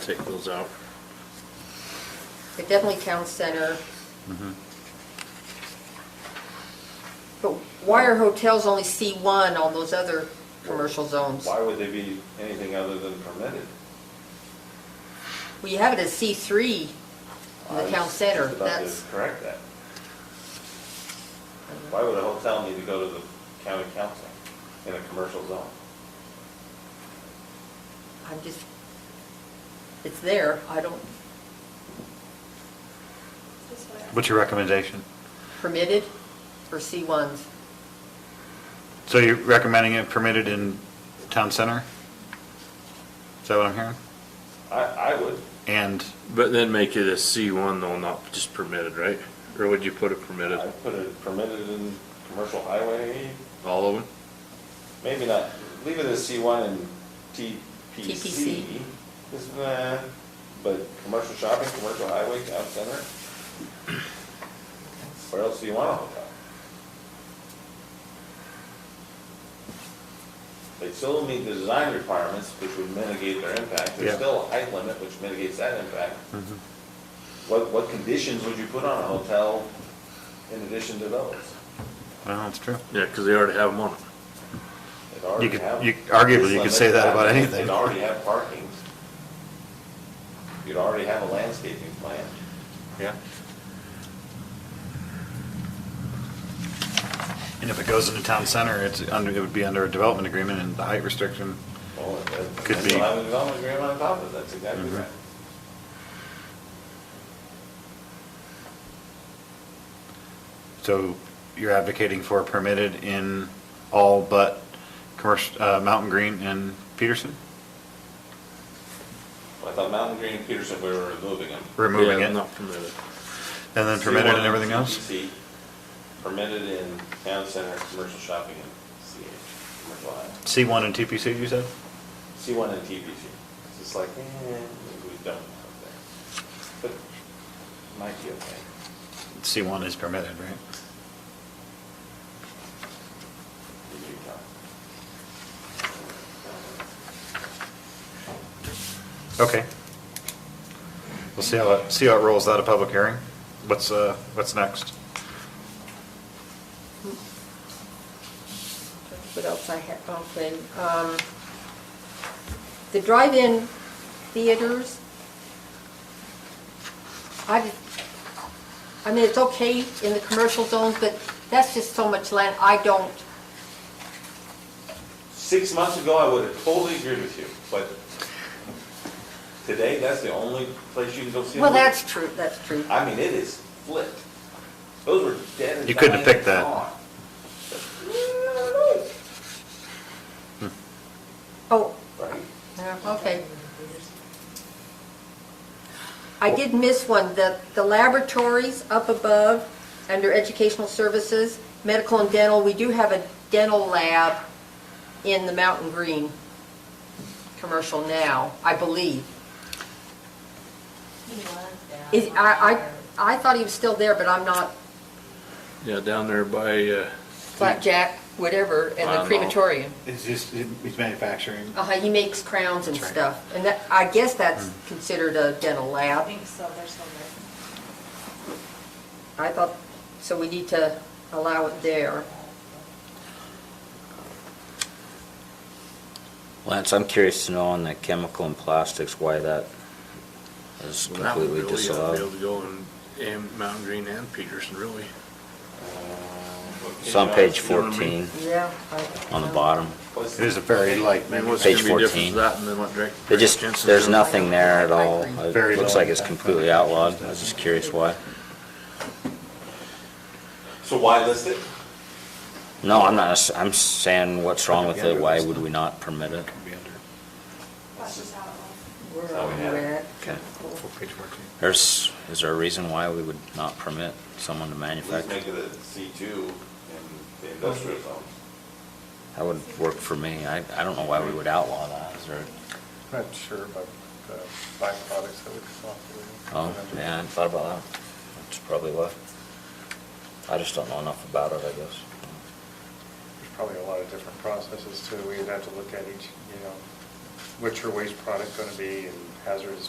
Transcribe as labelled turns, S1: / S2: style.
S1: take those out.
S2: But definitely town center. But why are hotels only C1 on those other commercial zones?
S3: Why would they be anything other than permitted?
S2: Well, you have it as C3 in
S3: I
S2: the
S3: was
S2: town
S3: just
S2: center,
S3: about to
S2: that's,
S3: Correct that. Why would a hotel need to go to the county council in a commercial zone?
S2: I'm just, it's there, I don't,
S4: What's your recommendation?
S2: permitted or C1s?
S4: So you're recommending it permitted in town center? Is that what I'm hearing?
S3: I, I would,
S4: And,
S1: But then make it a C1 though, not just permitted, right? Or would you put it permitted,
S3: I'd put it permitted in commercial highway,
S1: all of them?
S3: maybe not, leave it as C one and TPC.
S2: TPC.
S3: Is, nah, but commercial shopping, commercial highway, town center. Where else do you want a hotel? They still meet the design requirements, which would mitigate their impact,
S4: Yeah.
S3: there's still a height limit, which mitigates that impact. What, what conditions would you put on a hotel in addition to those?
S4: well, that's true.
S1: Yeah, because they already have them on it.
S3: It already
S4: could-
S3: have-
S4: you- arguably, you could say that about anything.
S3: It already have parking. You'd already have a landscaping plan.
S1: Yeah.
S4: And if it goes into town center, it's under, it would be under a development agreement and the height restriction.
S3: Well, it- it-
S4: Could
S3: and
S4: be.
S3: you'll have a development agreement on top of it, that's exactly
S4: Mhm.
S3: right.
S4: So you're advocating for permitted in all but commercial, uh, Mountain Green and Peterson?
S3: Well, I thought Mountain Green and Peterson, we were removing them.
S4: Removing
S1: Yeah,
S4: it and
S1: Not permitted.
S4: then permitted and everything else?
S3: CPC, Permitted in town center, commercial shopping, and CH, commercial highway.
S4: C1 and TPC, you said?
S3: C one and TPC. It's just like, eh, maybe we don't have that. But might be okay.
S4: C1 is permitted, right? Okay. We'll see how, it see how it rolls out of public hearing. What's, uh, what's next?
S2: What else I have, okay, um, the drive-in theaters. I, just- I mean, it's okay in the commercial zones, but that's just so much land, I don't,
S3: Six months ago, I would have totally agreed with you, but today, that's the only place you can go see a
S2: well,
S3: movie.
S2: that's true, that's true.
S3: I mean, it is flipped. Those were dead and
S4: You couldn't have
S3: dying
S4: picked that.
S3: gone. But, mm,
S2: Oh,
S3: no, Right?
S2: Yeah, okay. I did miss one, the, the laboratories up above, under educational services, medical and dental, we do have a dental lab in the Mountain Green commercial now, I believe. Is, I, I, I thought he was still there, but I'm not
S1: Yeah, down there by, uh,
S2: Blackjack, whatever, and
S1: I
S2: the
S1: don't know.
S2: crematorium.
S4: It's just, he's manufacturing.
S2: Uh-huh, he makes crowns and
S4: That's right.
S2: stuff, and that, I guess that's considered a dental
S5: I
S2: lab.
S5: think so, there's some there.
S2: I thought, so we need to allow it there.
S6: Lance, I'm curious to know on the chemical and plastics, why that is
S1: well, that one really,
S6: completely
S1: I'd be able
S6: disallowed.
S1: to go in, in Mountain Green and Peterson, really.
S6: It's on page
S1: You know what I mean?
S6: 14,
S2: Yeah.
S6: on the bottom.
S3: What's-
S4: It is a very
S1: I
S4: light,
S1: mean,
S4: manu-
S1: what's gonna
S6: Page
S1: be different
S6: 14.
S1: to That and then what Drake.
S6: It just,
S1: Jensen's
S6: there's
S1: doing?
S6: nothing there at all.
S4: Very
S6: It looks
S4: low
S6: like it's
S4: impact.
S6: completely outlawed. I was just curious why.
S3: So why list it?
S6: No, I'm not, s- I'm saying what's wrong with it, why would we not permit it?
S5: That's just how it was.
S2: Where
S3: Oh,
S2: are we
S3: yeah.
S2: at?
S6: Okay.
S4: Full page fourteen.
S6: There's, is there a reason why we would not permit someone to
S3: Let's make
S6: manufacture?
S3: it a C two in the industrial zone.
S6: That would work for me. I, I don't know why we would outlaw that. Is there,
S7: I'm not sure about uh, the byproducts that would come off. the-
S6: oh, yeah, I hadn't thought about that. That's probably why. I just don't know enough about it, I guess.
S7: There's probably a lot of different processes too. We'd have to look at each, you know, what's your waste product going to be and hazardous